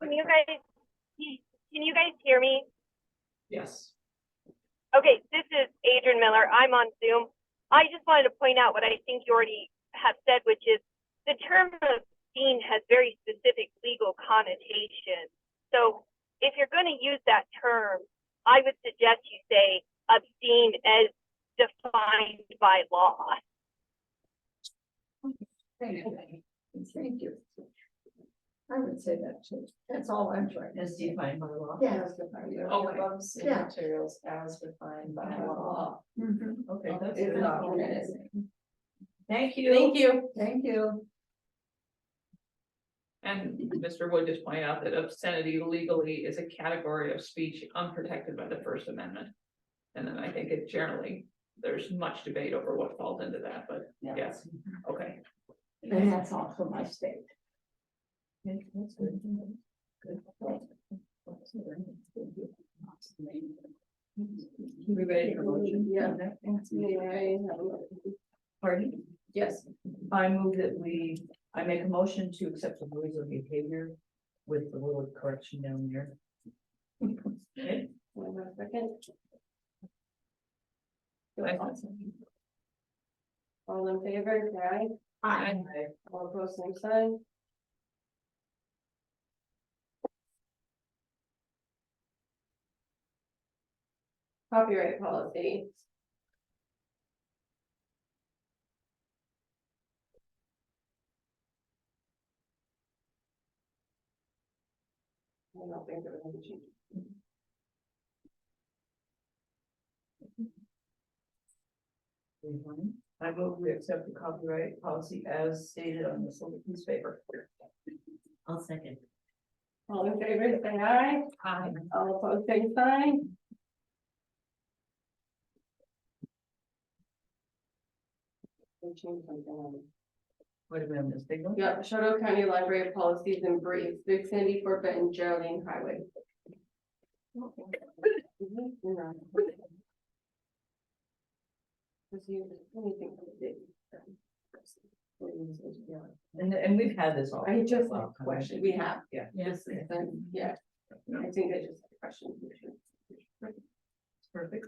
Can you guys, can you guys hear me? Yes. Okay, this is Adrian Miller. I'm on Zoom. I just wanted to point out what I think you already have said, which is the term obscene has very specific legal connotations. So if you're going to use that term, I would suggest you say obscene as defined by law. Thank you. Thank you. I would say that too. That's all I'm trying to As say. defined by law. Yeah. Okay. Bumps and Yeah. materials as defined by By law. Mhm. Okay, that's. It's not good. organizing. Thank you. Thank you. Thank you. And Mr. Wood just pointed out that obscenity legally is a category of speech unprotected by the First Amendment. And then I think it generally, there's much debate over what falls into that, but yes, okay. And that's all for my state. We ready for motion? Yeah. Pardon? Yes, I move that we, I make a motion to accept the rules of behavior with the little correction down there. one more second. All in favor, say aye. All opposed, same sign. Copyright policy. I don't think there was any change. I vote we accept the copyright policy as stated on this little piece of paper. I'll second. All in favor, say aye. All opposed, same sign. We changed something on it. What about this big one? Yeah, Shoto County Library Policies and Briefs, Big Sandy Forkett and Geraldine Highway. Mhm, you're right. Let's see, anything for the day. And, and we've had this all. I just have a question, we have, Yeah. this is, um, yeah, I think I just have a question. Perfect.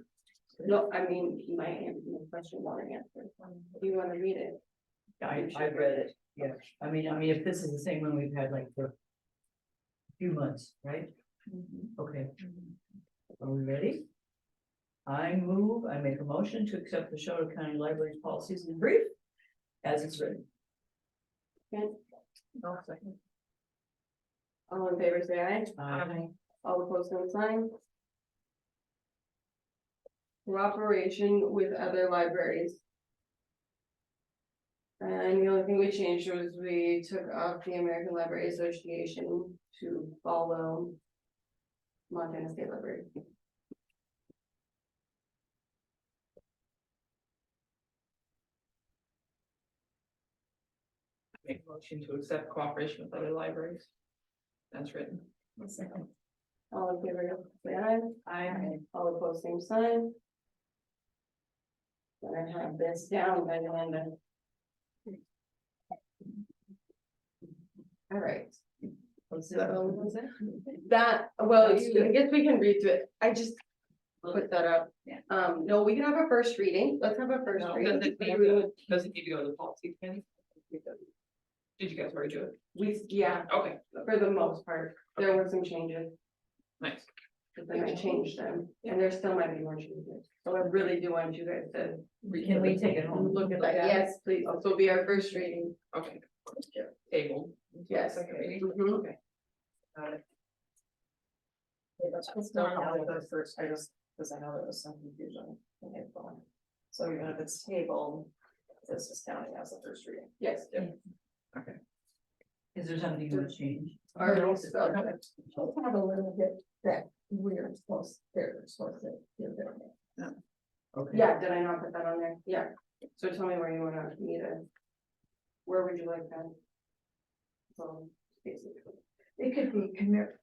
No, I mean, my, my question wasn't answered, do you wanna read it? I, I've read it, yeah, I mean, I mean, if this is the same one we've had like for. a Few months, right? Okay. Are we ready? I move, I make a motion to accept the Shoto County Library's policies in brief. As it's written. Okay, I'll second. All in favor, say aye. Aye. All opposed, same sign. Cooperation with other libraries. And the only thing we changed was we took off the American Library Association to follow Montana State Library. Make a motion to accept cooperation with other libraries. That's written. Second. All in favor, say aye. Aye. All opposed, same sign. And I have this down by the end All right. So That, well, you- I guess we can read through it. I just put that up. Yeah. Um, no, we can have a first reading. Let's have a first No, does it need reading. to- does it need to go to the policy committee? Did you guys already do it? We, yeah, Okay, for the most part, there were some changes, nice. but then I changed them, and there still might be more changes. So I really do want you guys to Can we take it home? look at that. Yes, please. This will be our first reading. Okay. Table. Yes. Second reading. Mhm. It's not all of those first, I just, because I know there was some confusion in April. So even if it's tabled, this is counting as a first reading. Yes. Is there something you want to change? Our She'll have a little bit that we're supposed, they're supposed to give their. name. Okay. Yeah, did I not put that on there? Yeah, so tell me where you wanna meet it. Where would you like that? So, basically, It could be commer-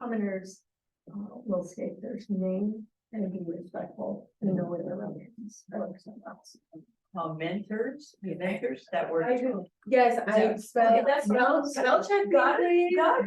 commoners, uh, will state their name and be respectful and know where their own names. Commenters, commenters, that word. yes, I Is spelled. that's- Spell, spell check, got it.